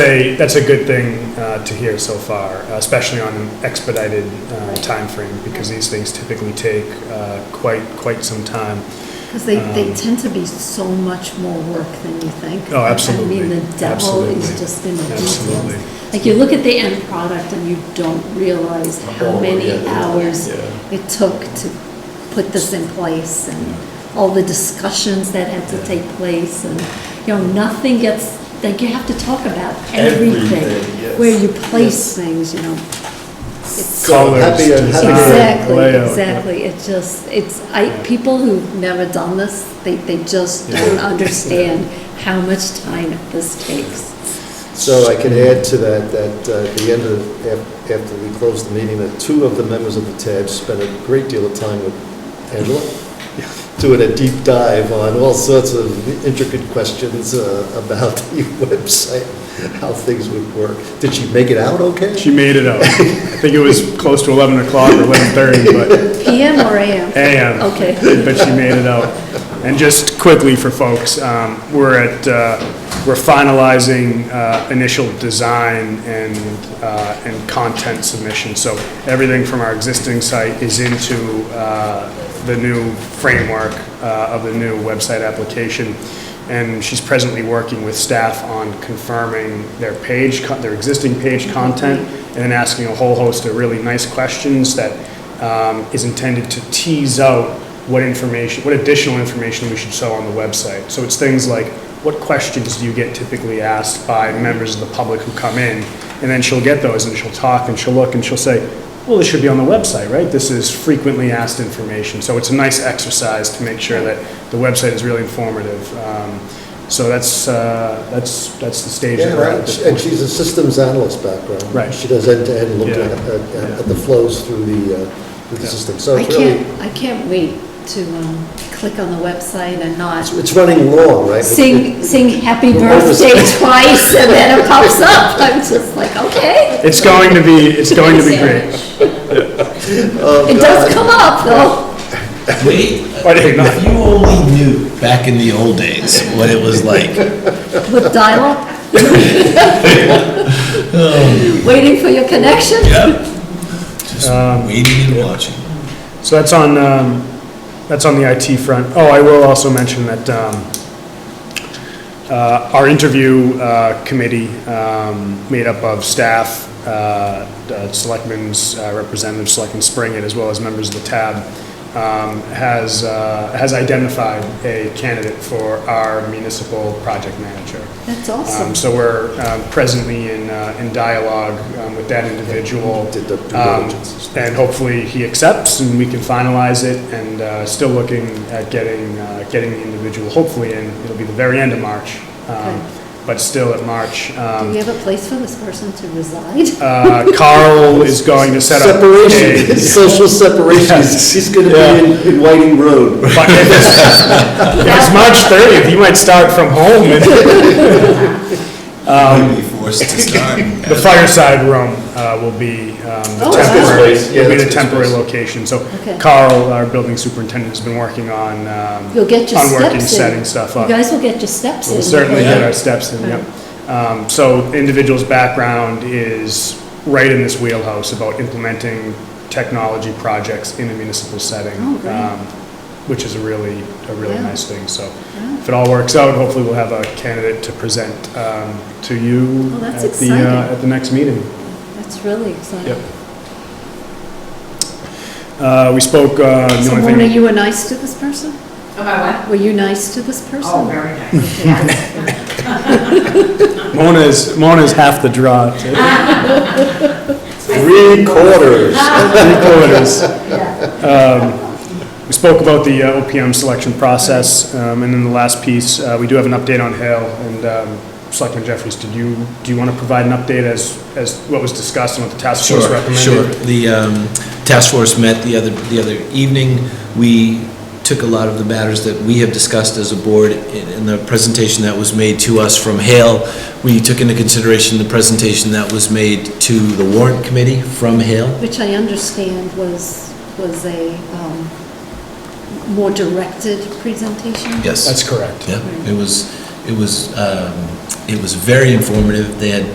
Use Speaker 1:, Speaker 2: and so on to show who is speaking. Speaker 1: a, that's a good thing uh, to hear so far, uh, especially on an expedited uh, timeframe, because these things typically take uh, quite, quite some time.
Speaker 2: Because they, they
Speaker 1: Um,
Speaker 2: tend to be so much more work than you think.
Speaker 1: Oh, absolutely.
Speaker 2: I mean, the devil
Speaker 1: Absolutely.
Speaker 2: is just in the
Speaker 1: Absolutely.
Speaker 2: details. Like, you look at the end product and you don't realize how
Speaker 3: Oh,
Speaker 2: many
Speaker 3: yeah, yeah,
Speaker 2: hours
Speaker 3: yeah.
Speaker 2: it took to put this in place and all the discussions that had to take place and, you know, nothing gets, like, you have to talk about
Speaker 3: Everything,
Speaker 2: everything.
Speaker 3: yes.
Speaker 2: Where you place things, you know. It's-
Speaker 3: So happy
Speaker 1: Colors,
Speaker 3: and happy to-
Speaker 1: design,
Speaker 2: Exactly,
Speaker 1: layout, yeah.
Speaker 2: exactly. It just, it's, I, people who've never done this, they, they just don't understand how much time this takes.
Speaker 3: So I can add to that, that uh, at the end of, af- after we closed the meeting, that two of the members of the TAB spent a great deal of time with Angela, doing a deep dive on all sorts of intricate questions uh, about the website, how things would work. Did she make it out okay?
Speaker 1: She made it out. I think it was close to 11 o'clock or 11:30, but
Speaker 2: PM or AM?
Speaker 1: AM.
Speaker 2: Okay.
Speaker 1: But she made it out. And just quickly for folks, um, we're at, uh, we're finalizing uh, initial design and, uh, and content submission. So everything from our existing site is into uh, the new framework uh, of the new website application. And she's presently working with staff on confirming their page, co- their existing page content, and then asking a whole host of really nice questions that um, is intended to tease out what information, what additional information we should show on the website. So it's things like, what questions do you get typically asked by members of the public who come in? And then she'll get those, and she'll talk, and she'll look, and she'll say, well, this should be on the website, right? This is frequently asked information. So it's a nice exercise to make sure that the website is really informative. Um, So that's, uh, that's, that's the stage
Speaker 3: Yeah,
Speaker 1: that we're at
Speaker 3: right.
Speaker 1: at this
Speaker 3: and
Speaker 1: point.
Speaker 3: she's a systems analyst background.
Speaker 1: Right.
Speaker 3: She does end-to-end, looking
Speaker 1: Yeah.
Speaker 3: at, at- at the flows through the, uh, through the
Speaker 1: Yeah.
Speaker 3: system. So
Speaker 2: I
Speaker 3: it's really,
Speaker 2: can't, I can't wait to, um, click on the website and not
Speaker 3: it's running long, right?
Speaker 2: sing, sing happy
Speaker 3: We're over-
Speaker 2: birthday twice and then it pops up. I'm just like, okay.
Speaker 1: It's going to be, it's going to be great.
Speaker 3: uh,
Speaker 2: It does come up though.
Speaker 4: Wait,
Speaker 1: Why did it not?
Speaker 4: if you only knew back in the old days what it was like.
Speaker 2: With dial-up? Waiting for your connection?
Speaker 4: Yep. Just
Speaker 1: Um,
Speaker 4: waiting and watching.
Speaker 1: So that's on, um, that's on the IT front. Oh, I will also mention that um, uh, our interview uh, committee, um, made up of staff, uh, uh, selectmen's uh, representatives, Selectman Springett, as well as members of the TAB, um, has, uh, has identified a candidate for our municipal project manager.
Speaker 2: That's
Speaker 1: Um,
Speaker 2: awesome.
Speaker 1: So we're um, presently in, uh, in dialogue um, with that individual.
Speaker 3: Did the due
Speaker 1: Um,
Speaker 3: diligence.
Speaker 1: And hopefully he accepts and we can finalize it and uh, still looking at getting, uh, getting the individual hopefully in, it'll be the very end of March, um, but still at March.
Speaker 2: Do
Speaker 1: Um,
Speaker 2: we have a place for this person to reside?
Speaker 1: uh, Carl is going to set up.
Speaker 3: Mm. Separation,
Speaker 1: a-
Speaker 3: social separation, he's, he's gonna
Speaker 1: Yeah.
Speaker 3: be in, in Whiting Road.
Speaker 1: But if it's- if it's March 30th, he might start from home and
Speaker 4: I'd be forced to start.
Speaker 1: um, The fireside room uh, will be um, the
Speaker 2: Oh, that's
Speaker 1: temporary,
Speaker 3: good space. Yeah,
Speaker 1: will be the
Speaker 3: that's good
Speaker 1: temporary
Speaker 3: space.
Speaker 1: location. So
Speaker 2: Okay.
Speaker 1: Carl, our building superintendent, has been working on, um,
Speaker 2: You'll get your
Speaker 1: on working,
Speaker 2: steps in.
Speaker 1: setting stuff
Speaker 2: You
Speaker 1: up.
Speaker 2: guys will get your steps in.
Speaker 1: We'll certainly
Speaker 2: before-
Speaker 1: get our steps in, yep. Um, So individual's background is right in this wheelhouse about implementing technology projects in a municipal setting.
Speaker 2: Oh, great.
Speaker 1: um, Which is a really, a really
Speaker 2: Yeah.
Speaker 1: nice thing, so if it all works out, hopefully we'll have a candidate to present um, to you
Speaker 2: Oh, that's
Speaker 1: at the, uh,
Speaker 2: exciting.
Speaker 1: at the next meeting.
Speaker 2: That's really exciting.
Speaker 1: Yep. Uh, we spoke, uh, the
Speaker 2: So
Speaker 1: only
Speaker 2: Mona,
Speaker 1: thing,
Speaker 2: you were nice to this person?
Speaker 5: About what?
Speaker 2: Were you nice to this person?
Speaker 5: Oh, very nice, yes.
Speaker 1: Mona is, Mona is half the draw.
Speaker 3: Three quarters.
Speaker 1: Three quarters.
Speaker 5: Yeah.
Speaker 1: Um, We spoke about the uh, OPM selection process, um, and then the last piece, uh, we do have an update on Hill, and, um, Selectman Jeffries, did you, do you want to provide an update as, as what was discussed and what the task force
Speaker 4: Sure,
Speaker 1: recommended?
Speaker 4: sure. The um, task force met the other, the other evening. We took a lot of the matters that we have discussed as a board in in the presentation that was made to us from Hale. We took into consideration the presentation that was made to the warrant committee from Hale.
Speaker 2: Which I understand was, was a um, more directed presentation?
Speaker 4: Yes.
Speaker 1: That's correct.
Speaker 4: Yeah, it was, it was, um, it was very informative. They had